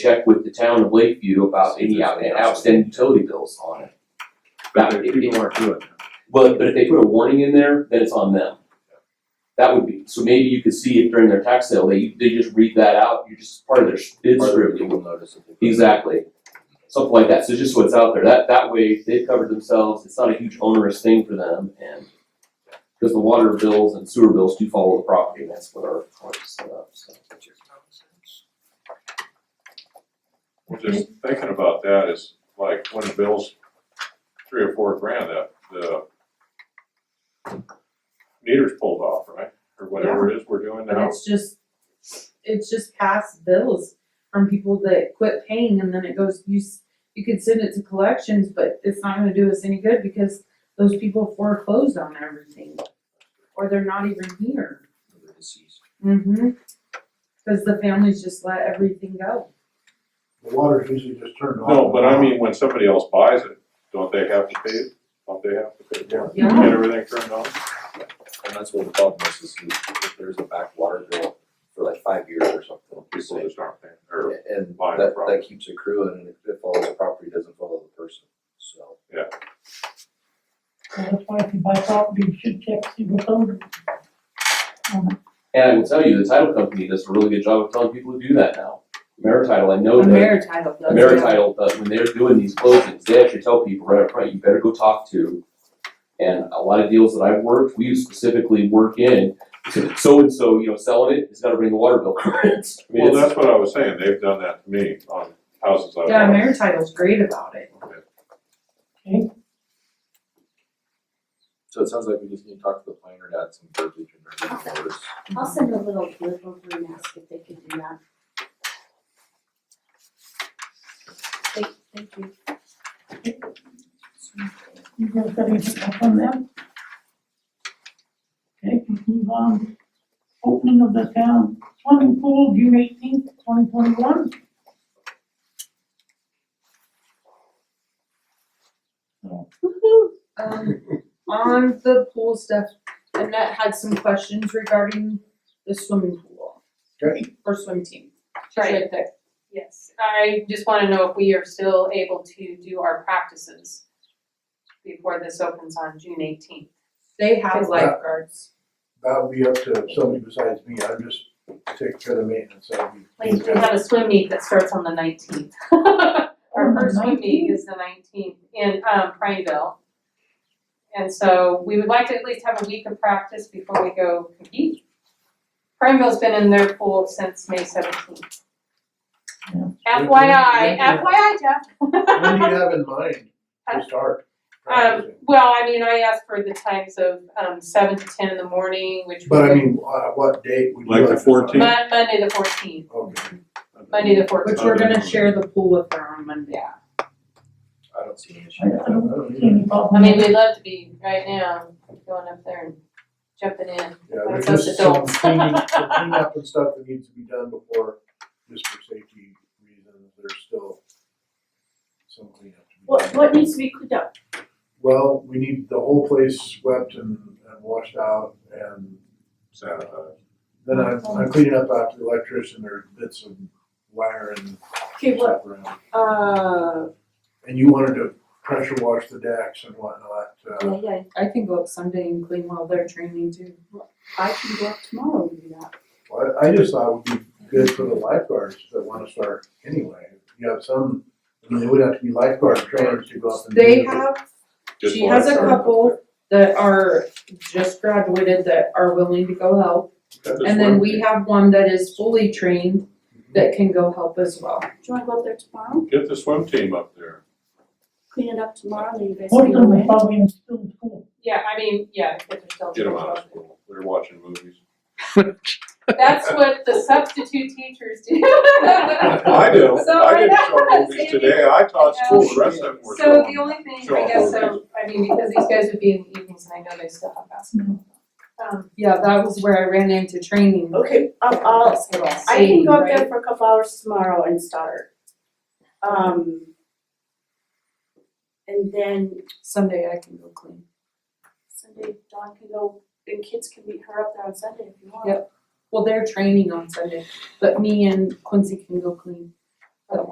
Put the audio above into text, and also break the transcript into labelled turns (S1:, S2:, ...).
S1: check with the town of Lakeview about
S2: See if
S1: any
S2: there's
S1: out-
S2: any
S1: outstanding utility bills on it. That would be,
S2: aren't doing it.
S1: but, but if they put a warning in there, then it's on them. That would be, so maybe you could see if during their tax sale, they, they just read that out, you're just part of their bid scrutiny.
S2: notice. if they-
S1: Exactly, something like that, so just what's out there, that, that way, they've covered themselves, it's not a huge onerous thing for them, and because the water bills and sewer bills do follow the property, and that's what our, our set up, so.
S3: Well, just thinking about that is like when the bill's three or four grand, that the meter's pulled off, right? Or whatever it is we're doing
S4: But
S3: now.
S4: it's just, it's just past bills from people that quit paying and then it goes, you, s- you could send it to collections, but it's not gonna do us any good because those people foreclosed on everything. Or they're not even here. Mm-hmm. Cause the families just let everything go.
S5: The water's usually just turned off.
S3: No, but I mean, when somebody else buys it, don't they have to pay it? Don't they have to pay it?
S2: Yeah.
S3: Get everything turned on?
S2: And that's what the problem is, is you- if there's a back water bill for like five years or something, it's
S3: People
S2: like-
S3: just aren't paying, or,
S2: and
S3: buy the
S2: that, that
S3: property.
S2: keeps accruing, and if it follows the property, it doesn't follow the person, so.
S6: So That's why if you buy property, you should check, see what's owned. Um,
S1: And I will tell you, the title company does a really good job of telling people to do that now. Amerititle, I know that,
S4: Ameritile does.
S1: Amerititle, uh, when they're doing these closings, they actually tell people right up front, you better go talk to. And a lot of deals that I've worked, we specifically work in, so-and-so, you know, selling it, has gotta bring the water bill current. I mean,
S3: well,
S1: it's-
S3: that's what I was saying, they've done that to me on houses I've
S4: Yeah,
S3: bought.
S4: Amerititle's great about it.
S2: So it sounds like we just need to talk to the planner, to add some verbiage and everything for us.
S7: I'll send a little blip over and ask if they could do that. Thank, thank you.
S6: You gonna set anything up on them? Okay, we move on. Opening of the town swimming pool, June eighteenth, twenty twenty-one.
S4: Um, on the pool stuff, Annette had some questions regarding the swimming pool.
S5: Okay.
S4: Or swim team. She's
S8: Right,
S4: right there.
S8: yes. I just wanna know if we are still able to do our practices before this opens on June eighteenth.
S4: They have
S8: Cause-
S4: lifeguards.
S5: That'll be up to somebody besides me, I'm just taking care of the maintenance, I'll be.
S8: Like, we have a swim meet that starts on the nineteenth. Our first swim meet is the nineteenth in, um, Prineville. And so we would like to at least have a week of practice before we go compete. Prineville's been in their pool since May seventeenth.
S6: Yeah.
S8: FYI, FYI, Jeff.
S5: What do you have in mind
S7: Uh,
S5: to start?
S8: Um,
S5: practicing?
S8: well, I mean, I asked for the times of, um, seven to ten in the morning, which
S5: But I
S8: would-
S5: mean, uh, what date would you
S3: Like
S5: like
S3: the
S5: to start?
S3: 14th?
S8: Mon- Monday the fourteenth,
S5: Okay.
S8: Monday the fourteenth.
S4: Which we're gonna share the pool with her on Monday.
S2: I don't see an
S6: I
S2: issue.
S6: I don't see any
S8: I
S6: problem.
S8: mean, we'd love to be right now, going up there and jumping in.
S5: Yeah,
S8: That's
S5: there's
S8: us
S5: just some
S8: adults.
S5: cleaning, some cleanup and stuff that needs to be done before, just for safety reasons, there's still some cleanup to be done.
S7: What, what needs to be cleaned up?
S5: Well, we need the whole place swept and, and washed out and
S3: Sanitize.
S5: uh, Then I'm, I'm cleaning up after the electrician, there are bits of wire and
S7: Okay, what,
S5: stuff around.
S4: Uh,
S5: And you wanted to pressure wash the decks and whatnot, uh,
S7: yeah, yeah,
S4: I can go up Sunday and clean while they're training too.
S7: I can go up tomorrow and do that.
S5: well, I, I just thought it would be good for the lifeguards that wanna start anyway. You have some, I mean, they would have to be lifeguard trainers to go up and do.
S4: They
S5: it.
S4: have,
S3: Just
S4: she
S3: wanna
S4: has a
S3: start.
S4: couple that are just graduated that are willing to go help.
S3: That's
S4: And
S3: one
S4: then we have one that is fully trained that can go help as well.
S7: Do you wanna go up there tomorrow,
S3: Get the swim team up there.
S7: clean it up tomorrow, and then you guys
S6: Most
S7: can
S6: of
S7: go
S6: them
S7: away?
S6: are probably in still school.
S8: Yeah, I mean, yeah, the kids are still.
S3: Get them out of school. They're watching movies.
S8: That's what the substitute teachers do.
S3: I do.
S8: So,
S3: I did
S8: right now,
S3: show movies
S8: Sandy-
S3: today. I taught
S8: Yeah.
S3: school. The rest of them were.
S8: So
S3: gone.
S8: the only thing,
S3: Sure.
S8: I guess, so, I mean, because these guys would be in the evenings and I know they still have basketball. Um,
S4: Yeah, that was where I ran into training.
S7: Okay, I'll, I'll,
S4: Basketball.
S7: Oh, uh, I can go up
S4: Right.
S7: there for a couple hours tomorrow and start. Um. And then
S4: Sunday I can go clean.
S7: Sunday, Dawn can go, and kids can meet her up there on Sunday if you want.
S4: Yep. Well, they're training on Sunday, but me and Quincy can go clean.